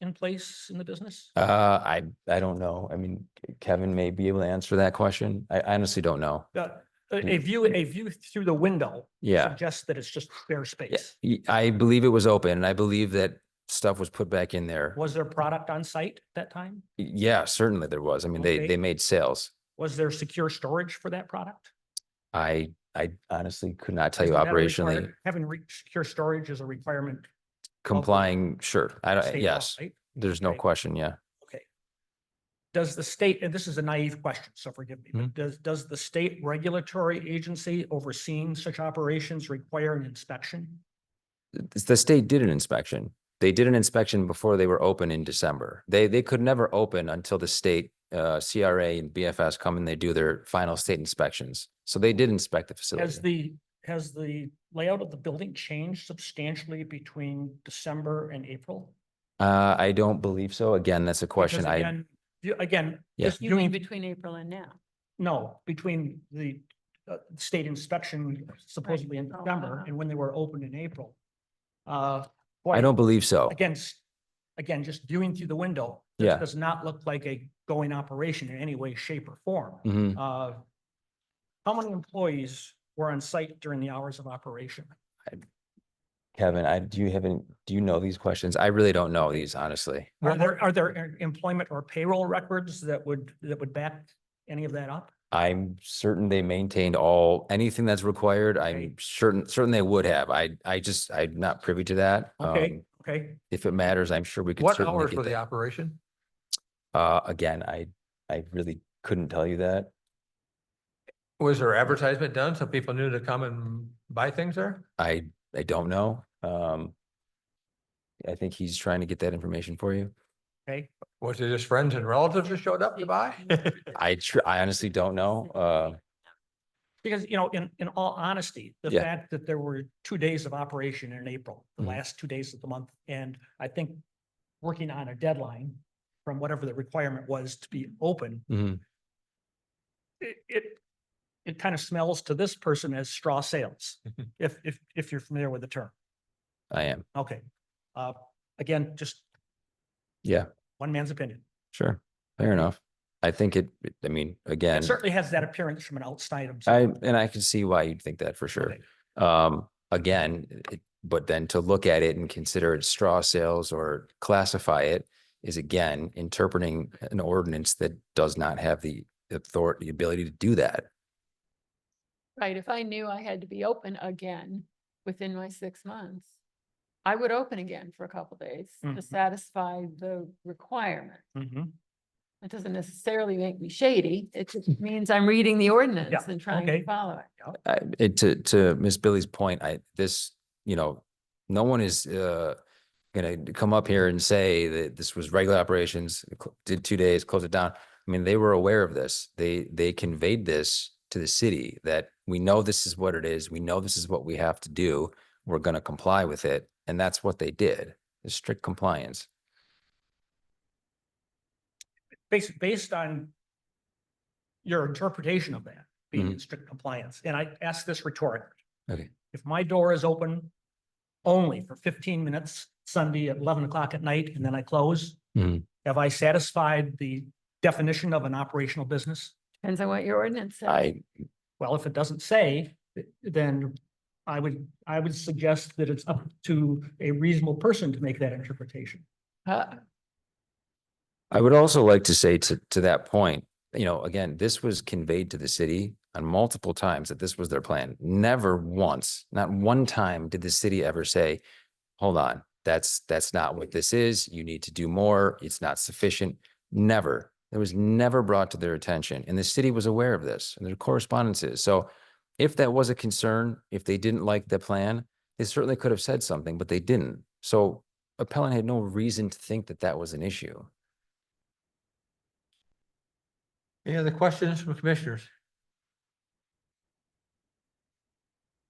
in place in the business? Uh, I, I don't know. I mean, Kevin may be able to answer that question. I I honestly don't know. The- A a view, a view through the window Hmm. Yeah. suggests that it's just bare space. Y- I believe it was open and I believe that stuff was put back in there. Was there product on site at that time? Yeah, certainly there was. I mean, they, Okay. they made sales. Was there secure storage for that product? I, I honestly could not tell you Isn't that a operationally requirement? Having re- secure storage is a requirement. of complying, sure. I don't, state law, Uh, yes, right? there's no Okay. question. Yeah. Does the state, and this is a naive question, so forgive Hmm. me, but does, does the state regulatory agency overseeing such operations require an inspection? It's- The state did an inspection. They did an inspection before they were open in December. They, they could never open until the state, uh, CRA and BFS come and they do their final state inspections. So they did inspect the Has facility. the, has the layout of the building changed substantially between December and April? Uh, I don't believe so. Again, that's a question Because I, again, you- Again, Yeah. just You mean doing, between April and now? no, between the uh, state inspection supposedly in Oh, December uh-huh. and when they were opened in April. Uh, I boy, don't believe so. Again, s- again, just viewing through the window. this Yeah. Does not look like a going operation in any way, shape or form. Mhm. Uh, How many employees were on site during the hours of operation? Kevin, I, do you have any, do you know these questions? I really don't know these, honestly. Are there, are there em- employment or payroll records that would, that would back any of that up? I'm certain they maintained all, anything that's required. I'm Right. certain, certain they would have. I, I just, I'm not privy to that. Okay. Um, Okay, If it matters, I'm sure we could What certainly hours were get the that. operation? Uh, again, I, I really couldn't tell you that. Was there advertisement done so people knew to come and buy things there? I, I don't know. Um, I think he's trying to get that information for you. okay. Was it just friends and relatives that showed up to buy? I tr- I honestly don't know. Uh, Because, you know, in, in all honesty, the Yeah. fact that there were two days of operation in April, the Mhm. last two days of the month, and I think working on a deadline from whatever the requirement was to be open, mhm. it, it, it kind of smells to this person as straw sales, Mm-hmm. if, if, if you're familiar with the term. I am. Okay. Uh, again, just Yeah, one man's opinion. sure. Fair enough. I think it, it- I mean, again, It certainly has that appearance from an outside I, observer. and I can see why you'd think that for sure. Okay. Um, again, it- but then to look at it and consider it straw sales or classify it is again interpreting an ordinance that does not have the authority, the ability to do that. Right, if I knew I had to be open again within my six months, I would open again for a couple days to Mhm. satisfy the requirement. Mhm. That doesn't necessarily make me shady. It just means I'm reading the ordinance and trying okay. to follow it. I, it- to, to Ms. Billy's point, I, this, you know, no one is, uh, gonna come up here and say that this was regular operations, cl- did two days, closed it down. I mean, they were aware of this. They, they conveyed this to the city that we know this is what it is. We know this is what we have to do. We're gonna comply with it. And that's what they did, is strict compliance. Based, based on your interpretation of that being in strict compliance, and I ask this rhetorically. Okay. If my door is open only for fifteen minutes Sunday at eleven o'clock at night and then I close, Mhm. have I satisfied the definition of an operational business? Depends on what your ordinance says. I, Well, if it doesn't say, th- then I would, I would suggest that it's up to a reasonable person to make that interpretation. Uh, I would also like to say to, to that point, you know, again, this was conveyed to the city on multiple times that this was their plan. Never once, not one time did the city ever say, hold on, that's, that's not what this is. You need to do more. It's not sufficient. Never. It was never brought to their attention. And the city was aware of this and their correspondences. So if that was a concern, if they didn't like the plan, they certainly could have said something, but they didn't. So appellant had no reason to think that that was an issue. Any other questions from commissioners?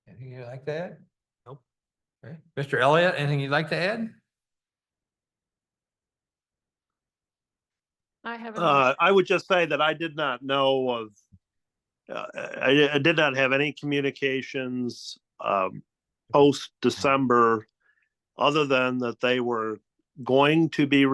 Anything you'd like to add? Nope. Okay, Mr. Elliott, anything you'd like to add? I haven't. Uh, I would just say that I did not know of, uh, I, I did not have any communications, um, post December, other than that they were going to be